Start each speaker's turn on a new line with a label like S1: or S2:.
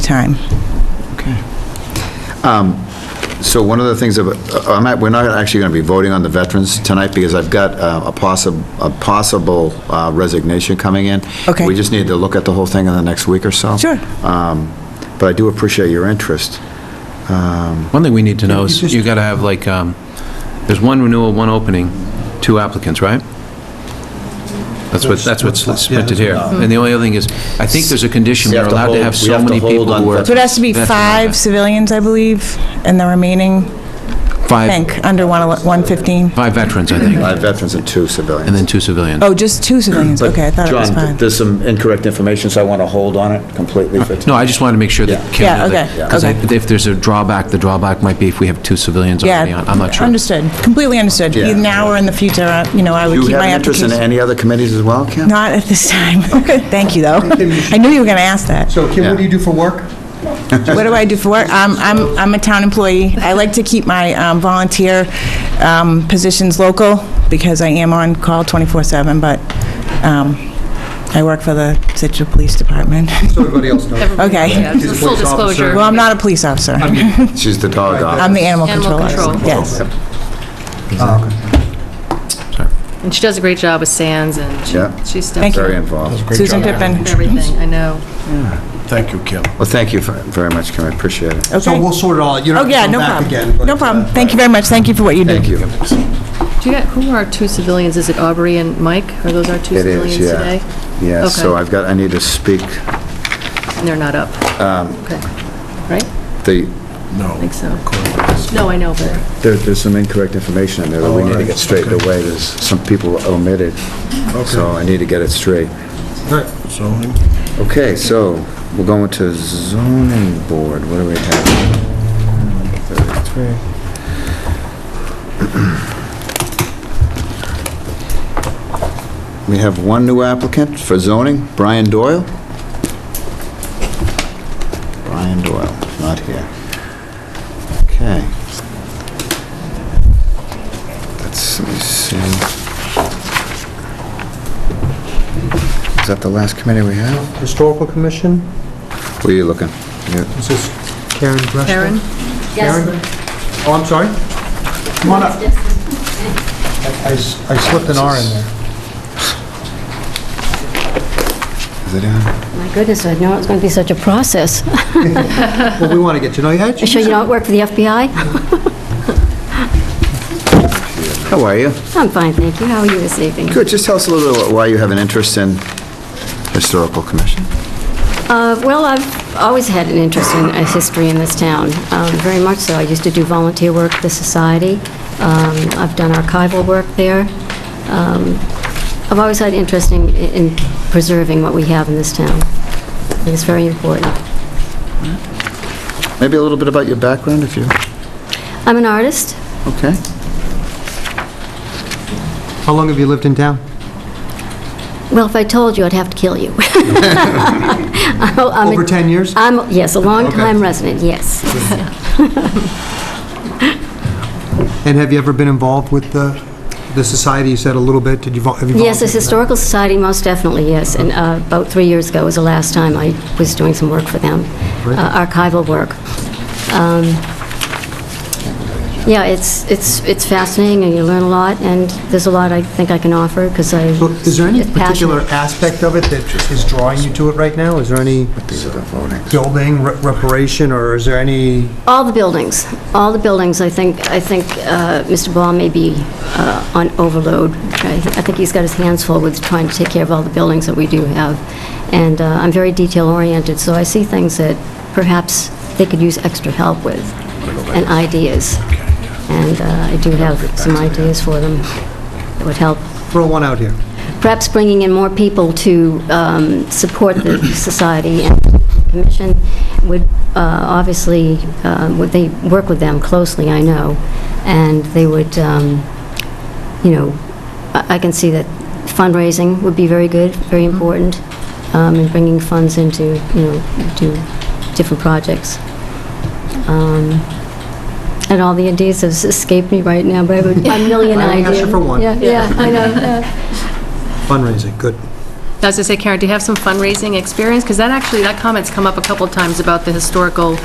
S1: time.
S2: Okay. Um, So one of the things, about- uh, I'm not- we're not actually going to be voting on the veterans tonight because I've got uh, a possible, a possible uh, resignation coming in.
S1: Okay.
S2: We just need to look at the whole thing in the next week or so.
S1: Sure.
S2: Um, But I do appreciate your interest.
S3: One thing we need to know is you got to have like, um, there's one renewal, one opening, two applicants, right? That's what, that's uh, what's printed here. And the only other thing is, I think there's a condition,
S2: We
S3: we're
S2: have to
S3: allowed
S2: hold-
S3: to have
S2: we
S3: so
S2: have to
S3: many
S2: hold
S3: people
S2: on
S3: who are...
S1: So it has to be
S3: veteran.
S1: five civilians, I believe, and the remaining, I
S3: Five,
S1: think, under one ele- 115.
S3: five veterans, I think,
S2: Five veterans and two civilians.
S3: and then two civilians.
S1: Oh, just two civilians, okay, I thought it was
S2: John,
S1: five.
S2: there's some incorrect information, so I want to hold on it completely for
S3: No, I just wanted to make sure that
S2: Yeah.
S3: Kim...
S1: Yeah,
S3: knew that,
S1: okay,
S3: 'cause I-
S1: okay.
S3: If there's a drawback, the drawback might be if we have two civilians already
S1: Yeah.
S3: on, I'm not sure.
S1: Understood, completely understood.
S2: Yeah.
S1: Either Now or in the future, uh, you know, I would
S2: Do
S1: keep
S2: you have
S1: my
S2: an interest in
S1: application.
S2: any other committees as well, Kim?
S1: Not at this time. Thank you, though. I knew you were going to ask that.
S4: So Kim, what do you do for work?
S1: What do I do for work? Um, I'm, I'm a town employee. I like to keep my um, volunteer um, positions local because I am on call 24/7, but um, I work for the Situate Police Department.
S4: So everybody else knows.
S1: Okay.
S5: Yeah, it's a
S4: She's a
S5: full
S4: police officer.
S5: disclosure.
S1: Well, I'm not a police officer.
S2: She's the dog officer.
S1: I'm the animal
S5: Animal
S1: controller.
S5: control.
S1: Yes.
S5: And she does a great job with Sands, and she-
S2: Yeah.
S5: she
S1: Thank
S5: steps
S1: you.
S5: up
S2: Very involved.
S1: Susan
S5: with
S1: Pippin.
S5: everything, I know.
S6: Thank you, Kim.
S2: Well, thank you ver- very much, Kim, I appreciate it.
S4: So we'll
S1: Okay.
S4: sort it all, out. you
S1: Oh,
S4: don't
S1: yeah,
S4: have to
S1: no
S4: come back again.
S1: problem.
S4: but,
S1: No
S4: uh,
S1: problem. Thank you very much. Thank you for what you do.
S2: Thank you.
S5: Do you got, who are two civilians? Is it Aubrey and Mike? Are those our two
S2: It is,
S5: civilians today?
S2: yeah. Yeah, so
S5: Okay.
S2: I've got, I need to speak,
S5: And they're not up? Okay. Right?
S2: the,
S5: I think so. No, I know, but
S2: there- there's some incorrect information in there that we need to get straightened away. There's some people omitted, so I need to get it straight.
S6: Zoning.
S2: Okay, so we're going to zoning board. What do we have? 33. We have one new applicant for zoning, Brian Doyle. Brian Doyle, not here. Okay. That's, let me see. Is that the last committee we have?
S4: Historical Commission,
S2: Where are you looking? You-
S4: this is Karen Breshko.
S5: Karen?
S4: Karen? Oh, I'm sorry. Come on up. I- I s- I slipped an R in there.
S2: Is it on?
S7: My goodness, I know it's going to be such a process.
S4: Well, we want to get to know you. How'd
S7: You sure
S4: you-
S7: you don't work for the FBI?
S2: How are you?
S7: I'm fine, thank you. How are you this evening?
S2: Good, just tell us a little bit why you have an interest in Historical Commission.
S7: Uh, Well, I've always had an interest in uh, history in this town, um, very much so. I used to do volunteer work at the society. Um, I've done archival work there. Um, I've always had interest in in preserving what we have in this town. I think it's very important.
S2: Maybe a little bit about your background, if you,
S7: I'm an artist,
S2: okay?
S4: How long have you lived in town?
S7: Well, if I told you, I'd have to kill you. I'm a- I'm a-
S4: Over 10 years?
S7: I'm, yes, a
S4: Okay.
S7: long-time resident, yes.
S4: And have you ever been involved with the, the society? You said a little bit. Did you, vol- have you?
S7: Yes, the
S4: volunteered for that?
S7: Historical Society, most definitely, yes. And uh, about three years ago was the last time I was doing some work for them, uh, archival work. Um, Yeah, it's, it's, it's fascinating, and you learn a lot, and there's a lot I think I can offer, because I...
S4: So Is there any
S7: it's passionate.
S4: particular aspect of it that is drawing you to it right now? Is there any building re- reparation, or is there any?
S7: All the buildings, all the buildings, I think, I think uh, Mr. Ball may be uh, on overload. I I think he's got his hands full with trying to take care of all the buildings that we do have. And uh, I'm very detail-oriented, so I see things that perhaps they could use extra help with, and ideas. And uh, I do have some ideas for them that would help
S4: Throw one out here.
S7: perhaps bringing in more people to um, support the society and commission would uh, obviously, uh, would they work with them closely, I know, and they would, um, you know, I I can see that fundraising would be very good, very important, um, and bringing funds into, you know, to different projects. Um, And all the ideas have escaped me right now, but I would- a million
S4: I
S7: ideas.
S4: only asked you for one.
S7: Yeah, yeah, I know, yeah.
S4: Fundraising, good.
S5: I was gonna say, Karen, do you have some fundraising experience? Because that actually, that comment's come up a couple times about the historical